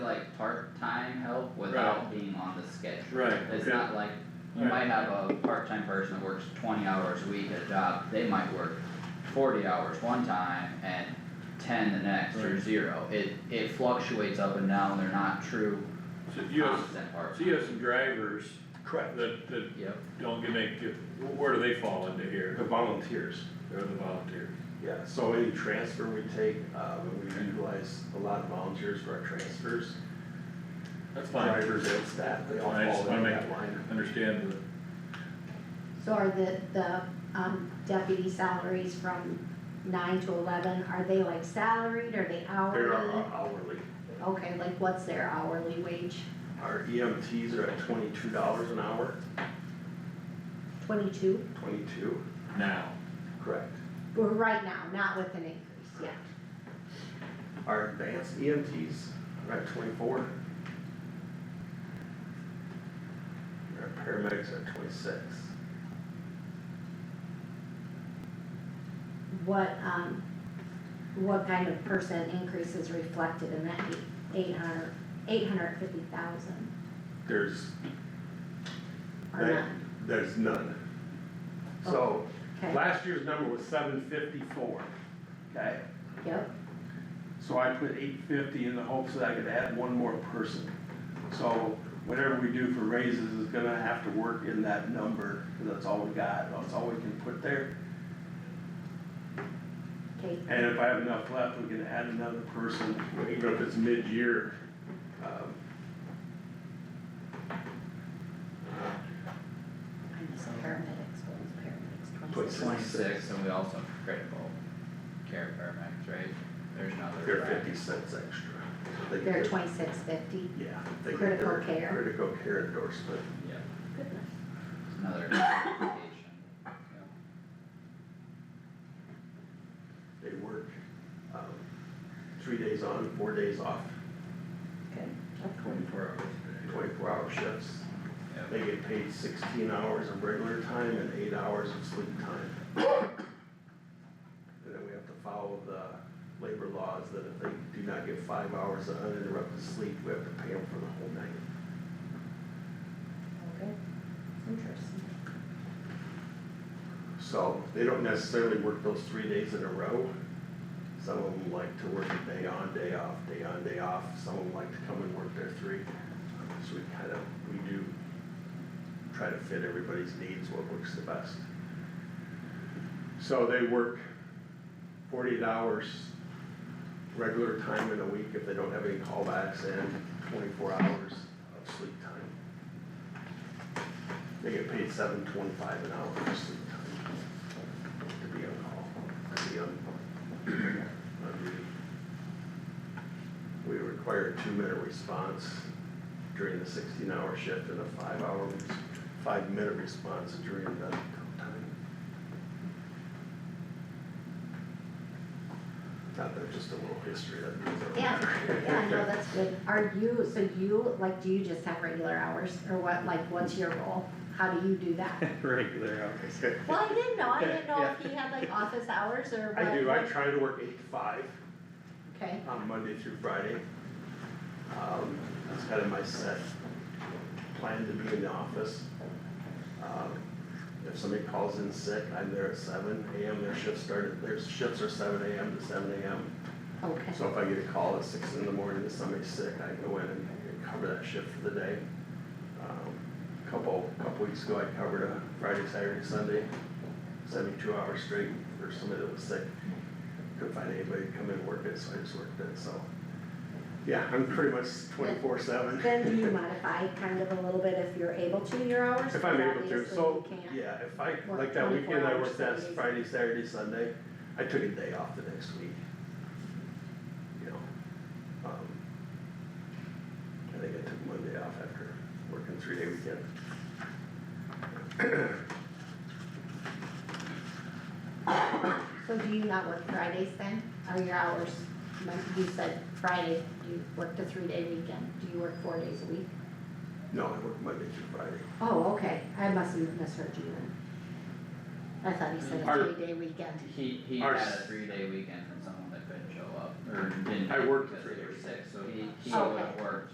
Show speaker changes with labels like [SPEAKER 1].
[SPEAKER 1] like part-time help without being on the schedule.
[SPEAKER 2] Right,
[SPEAKER 1] It's
[SPEAKER 2] okay.
[SPEAKER 1] not like, you
[SPEAKER 2] Alright.
[SPEAKER 1] might have a part-time person that works twenty hours a week at a job, they might work forty hours one time and ten the next or
[SPEAKER 2] Right.
[SPEAKER 1] zero. It, it fluctuates up and down, they're not true
[SPEAKER 2] So you have,
[SPEAKER 1] constant part.
[SPEAKER 2] so you have some drivers
[SPEAKER 3] Correct,
[SPEAKER 2] that, that
[SPEAKER 1] Yep,
[SPEAKER 2] don't get make, where do they fall into here?
[SPEAKER 3] the volunteers,
[SPEAKER 2] They're the volunteers.
[SPEAKER 3] yeah, so any transfer we take, uh, when we utilize a lot of volunteers for our transfers,
[SPEAKER 2] That's fine,
[SPEAKER 3] drivers and staff, they all
[SPEAKER 2] I just
[SPEAKER 3] fall
[SPEAKER 2] wanna
[SPEAKER 3] in
[SPEAKER 2] make-
[SPEAKER 3] that line.
[SPEAKER 2] understand
[SPEAKER 4] So are the, the, um, deputy salaries from nine to eleven, are they like salaried, are they hourly?
[SPEAKER 3] They're our- our hourly,
[SPEAKER 4] Okay, like what's their hourly wage?
[SPEAKER 3] our EMTs are at twenty-two dollars an hour,
[SPEAKER 4] Twenty-two,
[SPEAKER 3] twenty-two,
[SPEAKER 2] the now.
[SPEAKER 3] correct.
[SPEAKER 4] Well, right now, not with an increase, yeah.
[SPEAKER 3] Our advanced EMTs are at twenty-four. Our paramedics are at twenty-six.
[SPEAKER 4] What, um, what kind of percent increase is reflected in that eight hundred, eight hundred fifty thousand
[SPEAKER 3] There's,
[SPEAKER 4] or
[SPEAKER 3] Right.
[SPEAKER 4] not?
[SPEAKER 3] there's none. So,
[SPEAKER 4] Okay,
[SPEAKER 3] last year's number was seven fifty-four, okay?
[SPEAKER 4] yep,
[SPEAKER 3] So I put eight fifty in the hopes that I could add one more person. So whatever we do for raises is gonna have to work in that number, because that's all we got, that's all we can put there.
[SPEAKER 4] okay,
[SPEAKER 3] And if I have enough left, we can add another person, even if it's mid-year. Um,
[SPEAKER 4] I missed paramedics, what was paramedics, twenty-six?
[SPEAKER 3] Put
[SPEAKER 1] twenty-six, and we also have critical care paramedics, right? There's another.
[SPEAKER 3] They're
[SPEAKER 1] rack.
[SPEAKER 3] fifty cents extra. They get
[SPEAKER 4] They're
[SPEAKER 3] their-
[SPEAKER 4] twenty-six fifty,
[SPEAKER 3] Yeah. they get
[SPEAKER 4] Critical
[SPEAKER 3] their
[SPEAKER 4] care.
[SPEAKER 3] Critical care endorsement.
[SPEAKER 1] Yep,
[SPEAKER 4] goodness.
[SPEAKER 1] it's another clarification. Yep.
[SPEAKER 3] They work, um, three days on, four days off,
[SPEAKER 4] Okay, that's cool.
[SPEAKER 2] Twenty-four hours.
[SPEAKER 3] twenty-four hour shifts.
[SPEAKER 1] Yep.
[SPEAKER 3] They get paid sixteen hours of regular time and eight hours of sleep time. And then we have to follow the labor laws that if they do not get five hours of uninterrupted sleep, we have to pay them for the whole night.
[SPEAKER 4] Okay, interesting.
[SPEAKER 3] So they don't necessarily work those three days in a row. Some of them like to work a day on, day off, day on, day off. Some of them like to come and work their three. So we kind of, we do try to fit everybody's needs, what works the best. So they work forty hours regular time in a week if they don't have any callbacks and twenty-four hours of sleep time. They get paid seven twenty-five an hour for sleep time. To be on call, to be on. on duty. We require a two-minute response during the sixteen-hour shift and a five-hour, res- five-minute response during the time. Not that, just a little history that goes over.
[SPEAKER 4] Yeah, yeah, no, that's good. Are you, so you, like, do you just have regular hours or what, like, what's your role? How do you do that?
[SPEAKER 3] Regular hours.
[SPEAKER 4] Well, I didn't know, I didn't know if he had like office hours or what.
[SPEAKER 3] I do, I try to work eight to five.
[SPEAKER 4] Okay,
[SPEAKER 3] on Monday through Friday. Um, that's kind of my set plan to be in the office. Um, If somebody calls in sick, I'm there at seven AM, their shift started, their shifts are seven AM to seven AM.
[SPEAKER 4] okay,
[SPEAKER 3] So if I get a call at six in the morning that somebody's sick, I go in and and cover that shift for the day. Um, Couple, couple weeks ago, I covered a Friday, Saturday, Sunday, seventy-two hours straight for somebody that was sick. Couldn't find anybody to come in and work it, so I just worked it, so. Yeah, I'm pretty much twenty-four seven.
[SPEAKER 4] then do you modify kind of a little bit if you're able to your hours?
[SPEAKER 3] If I'm
[SPEAKER 4] Because
[SPEAKER 3] able to,
[SPEAKER 4] obviously
[SPEAKER 3] so,
[SPEAKER 4] you can't.
[SPEAKER 3] yeah, if I,
[SPEAKER 4] work
[SPEAKER 3] like that
[SPEAKER 4] 24
[SPEAKER 3] weekend I
[SPEAKER 4] hours,
[SPEAKER 3] worked that
[SPEAKER 4] seven days.
[SPEAKER 3] Friday, Saturday, Sunday, I took a day off the next week. You know, um, I think I took Monday off after working three day weekend.
[SPEAKER 4] So do you not work Fridays then? Are your hours, like you said, Friday, you worked a three-day weekend, do you work four days a week?
[SPEAKER 3] No, I worked Monday through Friday.
[SPEAKER 4] Oh, okay, I must have misheard you then. I thought you said
[SPEAKER 3] Our-
[SPEAKER 4] a three-day weekend.
[SPEAKER 1] He, he had
[SPEAKER 3] Our
[SPEAKER 1] a
[SPEAKER 3] s-
[SPEAKER 1] three-day weekend from someone that couldn't show up, or didn't.
[SPEAKER 3] I worked
[SPEAKER 1] because
[SPEAKER 3] three
[SPEAKER 1] they were
[SPEAKER 3] days.
[SPEAKER 1] sick, so he, he
[SPEAKER 4] Okay.
[SPEAKER 1] would have worked